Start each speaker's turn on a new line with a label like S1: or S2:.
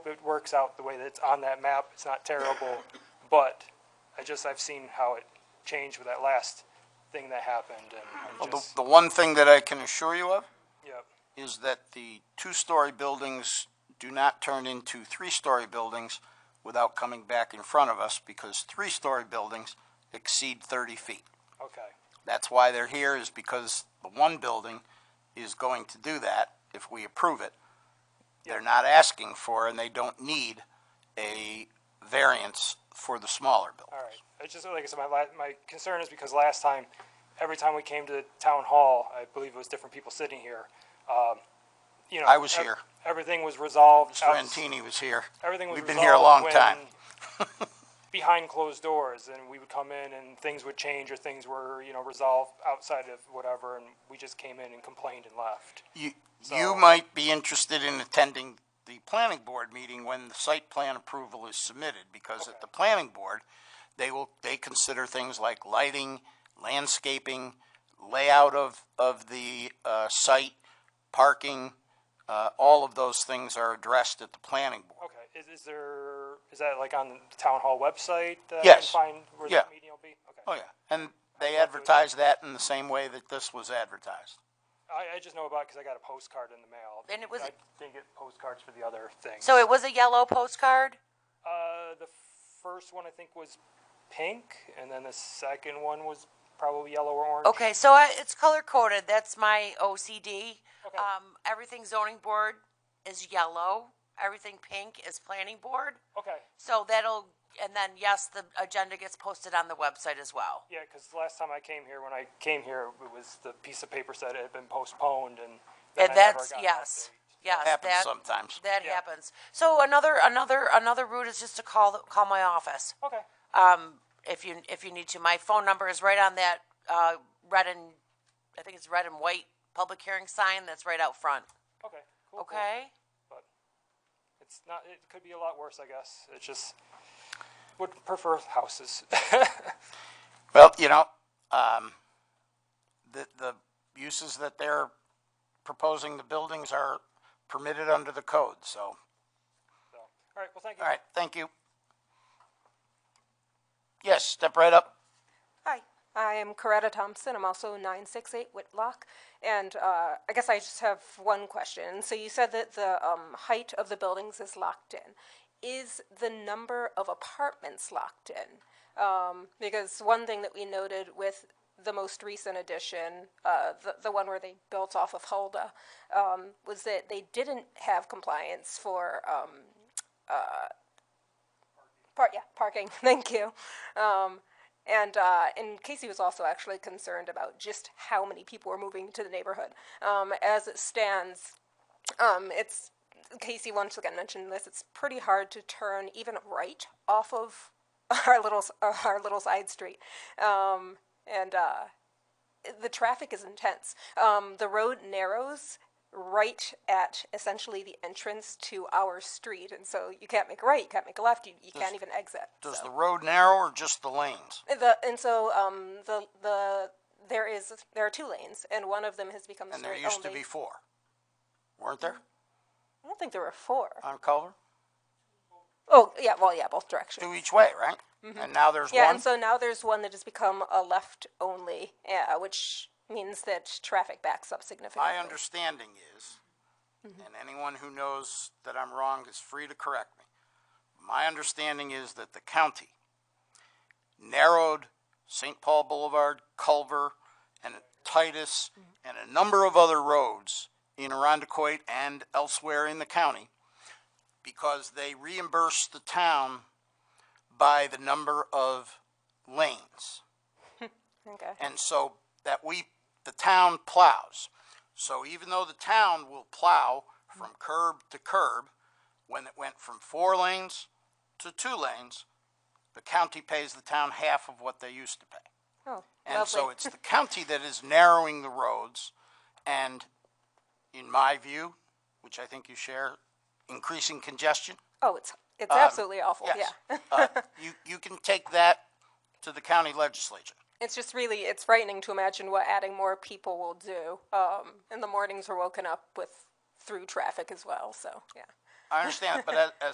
S1: works out the way that it's on that map. It's not terrible, but I just, I've seen how it changed with that last thing that happened and I
S2: Well, Oh, the,
S1: just,
S2: the one thing that I can assure you of
S1: yep,
S2: is that the two-story buildings do not turn into three-story buildings without coming back in front of us because three-story buildings exceed thirty feet.
S1: okay,
S2: That's why they're here is because the one building is going to do that if we approve it. They're not asking for and they don't need a variance for the smaller building.
S1: all right. It's just, like I said, my la, my concern is because last time, every time we came to the town hall, I believe it was different people sitting here, um, you know.
S2: I was
S1: ev-
S2: here.
S1: Everything was resolved. outs-
S2: Frantini was here.
S1: Everything was
S2: We've been here a
S1: resolved
S2: long time.
S1: when- behind closed doors, and we would come in and things would change or things were, you know, resolved outside of whatever, and we just came in and complained and left.
S2: You,
S1: So-
S2: you might be interested in attending the planning board meeting when the site plan approval is submitted, because at the planning board, they will, they consider things like lighting, landscaping, layout of, of the, uh, site, parking, uh, all of those things are addressed at the planning board.
S1: Okay, is, is there, is that like on the town hall website? that I can
S2: Yes.
S1: find where
S2: Yeah.
S1: that meeting will be?
S2: Oh,
S1: Okay.
S2: yeah, and they advertise that in the same way that this was advertised.
S1: I, I just know about, it cause I got a postcard in the mail.
S3: And it was-
S1: I didn't get postcards for the other thing.
S3: So it was a yellow postcard?
S1: Uh, the first one I think was pink, and then the second one was probably yellow or orange.
S3: Okay, so I, it's color coded. That's my OCD.
S1: Okay.
S3: Um, everything zoning board is yellow. Everything pink is planning board.
S1: Okay.
S3: So that'll, and then yes, the agenda gets posted on the website as well.
S1: Yeah, because last time I came here, when I came here, it was the piece of paper said it had been postponed, and then
S3: And
S1: I never
S3: that's,
S1: got an
S3: yes, yes.
S2: Happens
S3: Uh, that-
S2: sometimes.
S3: That
S1: Yeah.
S3: happens. So another, another, another route is just to call, the- call my office.
S1: update. Okay.
S3: um, if you if you need to. My phone number is right on that uh, red and I think it's red and white public hearing sign that's right out front.
S1: Okay. Cool. cool.
S3: Okay.
S1: But it's not. It could be a lot worse, I guess. It's just would prefer houses.
S2: Well, you know, um, the, the uses that they're proposing the buildings are permitted under the code, so,
S1: so, all right. Well, thank you.
S2: all right, thank you. Yes, step right up.
S4: Hi, I am Coretta Thompson. I'm also 968 Whitlock. And uh, I guess I just have one question. So you said that the um, height of the buildings is locked in. Is the number of apartments locked in? Um, because one thing that we noted with the most recent addition, uh, the, the one where they built off of Hulda, um, was that they didn't have compliance for um, Par- yeah, parking. Thank you. Um, and uh, and Casey was also actually concerned about just how many people were moving to the neighborhood. Um, as it stands, um, it's Casey once again mentioned this. It's pretty hard to turn even right off of our little s- uh, our little side street, um, and uh, the traffic is intense. Um, the road narrows right at essentially the entrance to our street, and so you can't make a right, you can't make a left, you, you can't even exit.
S2: Does
S4: so.
S2: the road narrow or just the lanes?
S4: The, and so um, the the there is there are two lanes, and one of them has become
S2: And there
S4: straight
S2: used to
S4: only.
S2: be four, weren't there,
S4: I don't think there were four.
S2: on Culver?
S4: Oh yeah, well yeah, both directions.
S2: Two each way, right? And now there's
S4: Mm-hmm. Yeah,
S2: one?
S4: and so now there's one that has become a left only, uh, which means that traffic backs up significantly.
S2: My understanding is, and anyone who knows that I'm wrong is free to correct me. My understanding is that the county narrowed St. Paul Boulevard, Culver, and Titus, and a number of other roads in Arundecoit and elsewhere in the county because they reimbursed the town by the number of lanes.
S4: Okay.
S2: And so that we, the town plows. So even though the town will plow from curb to curb, when it went from four lanes to two lanes, the county pays the town half of what they used to pay.
S4: Oh,
S2: And so
S4: lovely.
S2: it's the county that is narrowing the roads and, in my view, which I think you share, increasing congestion.
S4: Oh, it's it's absolutely awful.
S2: Um, Yes.
S4: Yeah.
S2: Uh, You, you can take that to the county legislature.
S4: It's just really it's frightening to imagine what adding more people will do. Um, and the mornings are woken up with through traffic as well. So yeah.
S2: I understand, but as, as